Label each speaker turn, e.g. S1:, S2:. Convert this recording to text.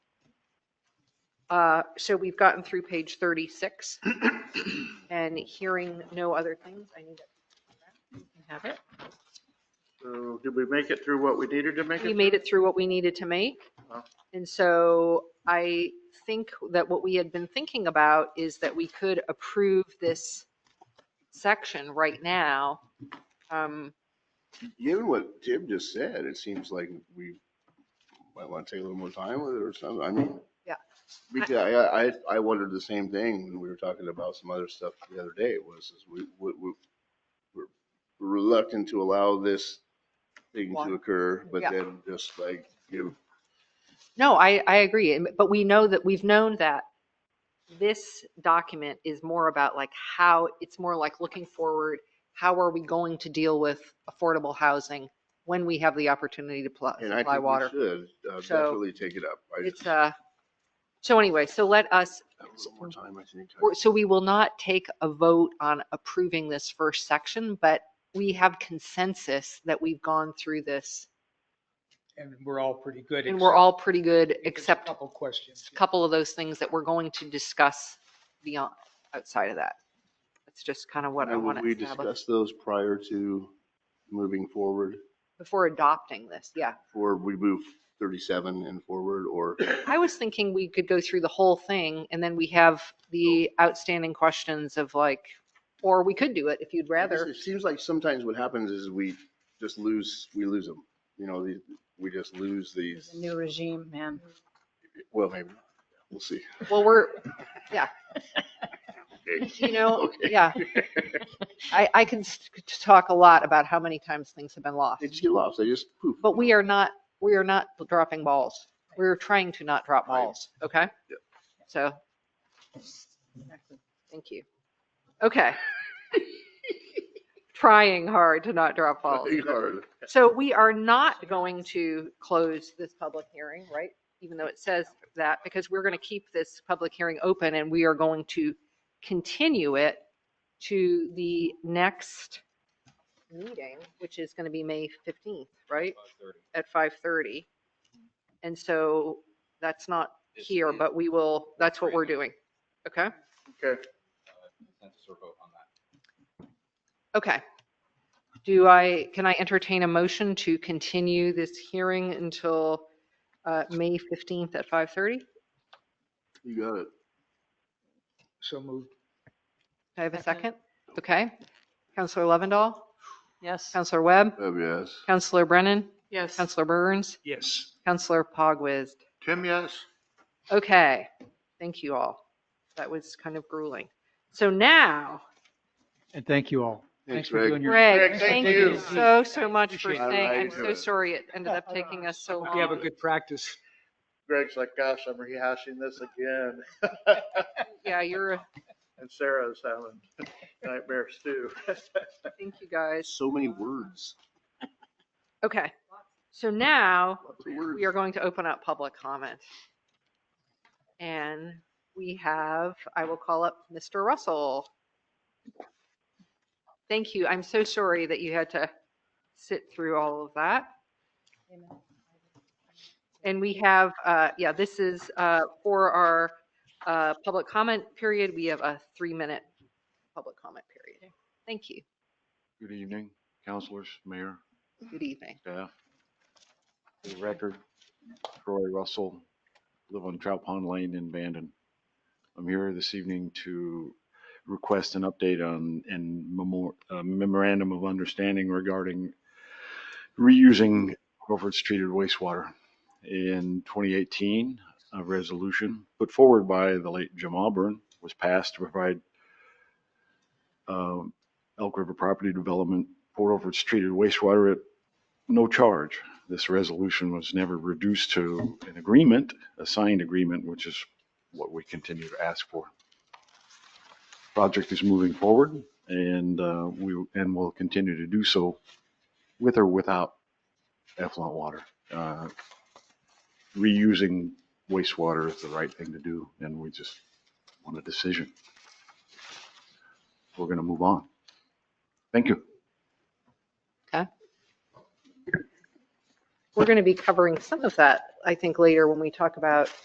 S1: Uh, So we've gotten through page 36 and hearing no other things. I need to have it.
S2: So did we make it through what we needed to make it?
S1: We made it through what we needed to make.
S2: Wow.
S1: And so I think that what we had been thinking about is that we could approve this section right now. Um,
S3: Given what Tim just said, it seems like we might want to take a little more time with it or something. I mean.
S1: Yeah.
S3: Because I, I, I wondered the same thing when we were talking about some other stuff the other day was, is we, we, we- we're reluctant to allow this thing
S1: Water.
S3: to occur, but
S1: Yeah.
S3: then just like give
S1: No, I, I agree. and- But we know that, we've known that this document is more about like how, it's more like looking forward. How are we going to deal with affordable housing when we have the opportunity to pl-
S3: And
S1: Uh,
S3: I
S1: supply
S3: think we
S1: water?
S3: should uh,
S1: So,
S3: definitely take it up. I
S1: It's,
S3: just
S1: uh, so anyway, so let us,
S3: a little more time, I think.
S1: We're- So we will not take a vote on approving this first section, but we have consensus that we've gone through this
S4: And we're all pretty good.
S1: and we're
S4: except-
S1: all pretty good,
S4: there's a
S1: except a
S4: Couple questions.
S1: couple of those things that we're going to discuss beyond, outside of that. That's just kind of what I
S3: Now,
S1: want
S3: would
S1: to
S3: we
S1: establish
S3: discuss those prior to moving forward,
S1: before adopting this. Yeah.
S3: or we move 37 and forward, or?
S1: I was thinking we could go through the whole thing and then we have the outstanding questions of like, or we could do it if you'd
S3: Because
S1: rather.
S3: It seems like sometimes what happens is we just lose, we lose them. You know, the- we just lose
S5: There's
S3: these,
S5: a new regime, man.
S3: well, maybe, not. we'll see.
S1: Well, we're,
S3: Okay.
S1: you know,
S3: Okay.
S1: yeah. I, I can s- talk a lot about how many times things have been lost,
S3: They just get lost, they just poof.
S1: but we are not, we are not dropping balls. We're trying to not drop
S3: Right.
S1: balls, okay?
S3: Yep.
S1: So, thank you. Okay. Trying hard to not drop balls.
S3: Hard.
S1: So we are not going to close this public hearing, right? Even though it says that, because we're going to keep this public hearing open and we are going to continue it to the next meeting, which is going to be May 15th, right? At 5:30. And so that's not here, but we will, that's what we're doing. Okay?
S2: Okay.
S1: Okay. Do I, can I entertain a motion to continue this hearing until uh, May 15th at 5:30? Do
S3: You got it.
S4: So moved.
S1: I have a second?
S5: Second.
S1: Okay. Counselor Lovendall,
S5: Yes.
S1: Counselor Webb,
S3: Oh, yes.
S1: Counselor Brennan,
S5: Yes.
S1: Counselor Burns,
S4: Yes.
S1: Counselor Pogwizd.
S2: Tim, yes?
S1: Okay, thank you all. That was kind of grueling. So now,
S4: And thank you all.
S3: Thanks,
S4: Thanks for
S3: Greg.
S4: doing your.
S1: Greg,
S2: Greg,
S1: thank
S2: thank
S1: you
S2: you.
S1: so, so much for
S4: Appreciate
S3: it.
S1: saying, I'm
S3: I
S1: so
S3: do.
S1: sorry it ended up taking us so
S4: Hope you have a
S1: long.
S4: good practice.
S2: Greg's like, gosh, I'm rehashing this again.
S1: Yeah, you're, a-
S2: And Sarah's having nightmares too.
S1: thank you guys.
S3: So many words.
S1: Okay, so now
S3: Lots of words.
S1: we are going to open up public comment. And we have, I will call up Mr. Russell. Thank you. I'm so sorry that you had to sit through all of that. And we have, uh, yeah, this is uh, for our uh, public comment period. We have a three-minute public comment period. Thank you.
S6: Good evening, councilors, mayor,
S1: Good evening.
S6: staff. For uh, the record, Troy Russell, live on Trout Pond Lane in Bandon. I'm here this evening to request an update on and memor- uh, memorandum of understanding regarding reusing Crawford's treated wastewater. In 2018, a resolution put forward by the late Jim Auburn was passed to provide um, Elk River Property Development, Port Orford's treated wastewater at no charge. This resolution was never reduced to an agreement, a signed agreement, which is what we continue to ask for. Project is moving forward and uh, we, and will continue to do so with or without effluent water. Uh, Reusing wastewater is the right thing to do and we just want a decision. We're going to move on. Thank you.
S1: We're going to be covering some of that, I think, later when we talk about